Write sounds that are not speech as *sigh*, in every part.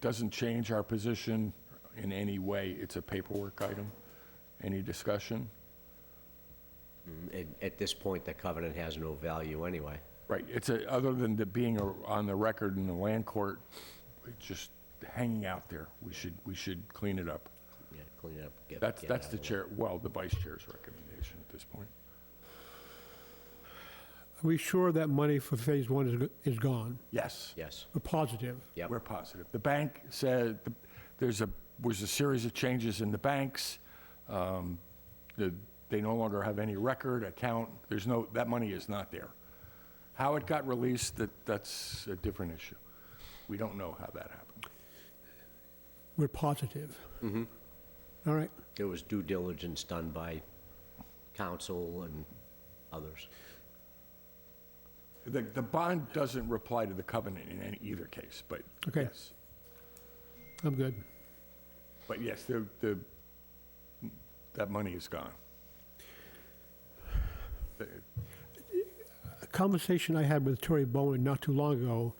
Doesn't change our position in any way. It's a paperwork item. Any discussion? At, at this point, the covenant has no value anyway. Right, it's a, other than the being a- on the record in the land court, it's just hanging out there. We should, we should clean it up. Yeah, clean it up. get- That's, get it that's out the of way. chair, well, the vice chair's recommendation at this point. Are we sure that money for phase one is, go- is gone? Yes. Yes, We're positive. yep, We're positive. The bank said, th- there's a, was a series of changes in the banks. Um, the- They no longer have any record, account, there's no, that money is not there. How it got released, that, that's a different issue. We don't know how that happened. We're positive. All right. there was due diligence done by council and others. The, the bond doesn't reply to the covenant in any, either case, but Okay. yes. I'm good. But yes, the, the, that money is gone. The- A conversation I had with Tory Bowen not too long ago,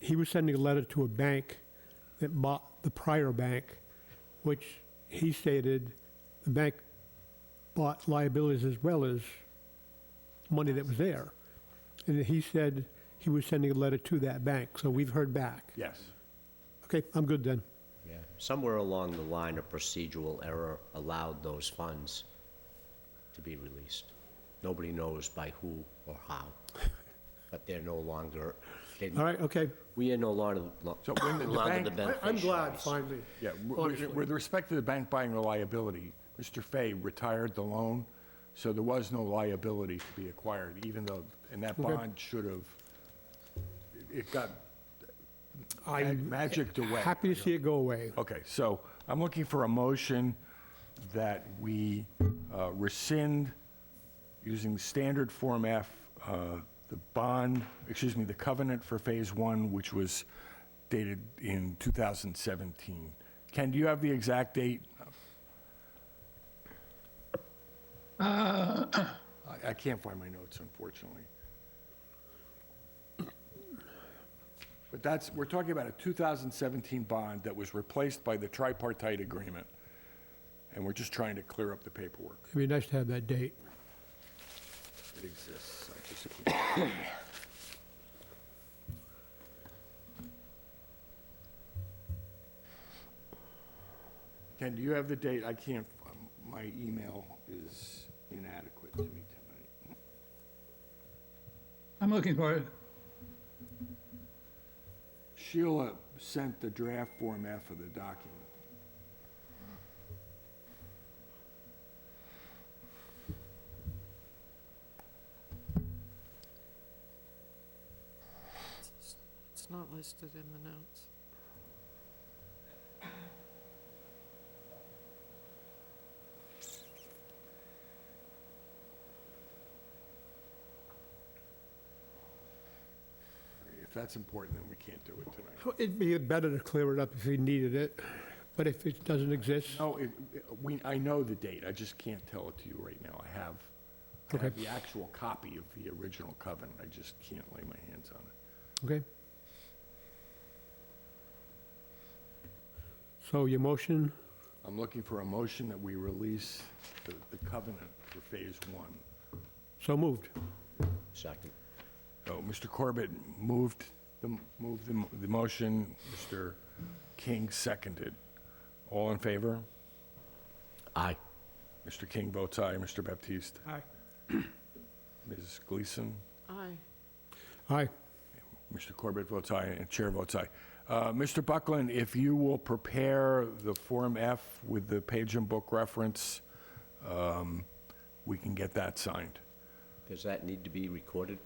he was sending a letter to a bank that bought the prior bank, which he stated the bank bought liabilities as well as money that was there. And he said he was sending a letter to that bank, so we've heard back. Yes, Okay, I'm good then. Yeah, somewhere along the line, a procedural error allowed those funds to be released. Nobody knows by who or *laughs* how, but they're no longer, they- All right, okay. we are no longer, lo- So when the longer bank- the I- beneficiaries. finally. yeah. w- w- With respect to the bank buying the liability, Mr. Fay retired the loan, so there was no liability to be acquired, even though, and that Okay. bond should have, it got I'm magicked away. happy to see it go away. Okay, so I'm looking for a motion that we uh, rescind, using the standard Form F, uh, the bond, excuse me, the covenant for Phase 1, which was dated in 2017. Ken, do you have the exact date? I I can't find my notes, unfortunately. But that's, we're talking about a 2017 bond that was replaced by the tripartite agreement, and we're just trying to clear up the paperwork. It'd be nice to have that date. It exists. I just- Ken, do you have the date? I can't, um, my email is inadequate to me tonight. I'm looking for it. Sheila sent the draft Form F of the document. It's not listed in the notes. If that's important, then we can't do it tonight. Well, It'd be better to clear it up if we needed it, but if it doesn't exist, No, it, it- we, I know the date, I just can't tell it to you right now. I have, I have Okay. the actual copy of the original covenant, I just can't lay my hands on it. okay? So your motion, I'm looking for a motion that we release the, the covenant for Phase One. so moved. Second, So Mr. Corbett moved the, moved the, mo- the motion, Mr. King seconded. All in favor? aye. Mr. King votes aye, Mr. Baptiste, Aye. Ms. Gleason, Aye. Aye. Mr. Corbett votes aye, and Chair votes aye. Uh, Mr. Buckland, if you will prepare the Form F with the page and book reference, um, we can get that signed. Does that need to be recorded?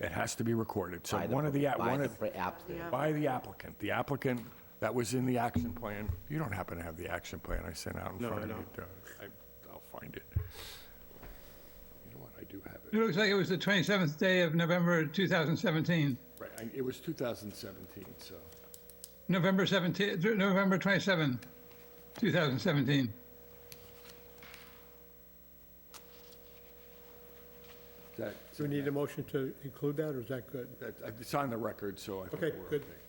It has to be recorded, so by the one of the, pro- a- by one the of, pro- applicant? Yeah. by the applicant, the applicant, that was in the action plan. You don't happen to have the action plan I sent out in front of you? No, I I'll find it. You know what, I do have It it. looks like it was the 27th day of November 2017. Right, I- it was 2017, so. November 17, th- November 27, 2017. that- Do we need a motion to include that, or is that good? that- It's on the record, so I think Okay, we're good. okay.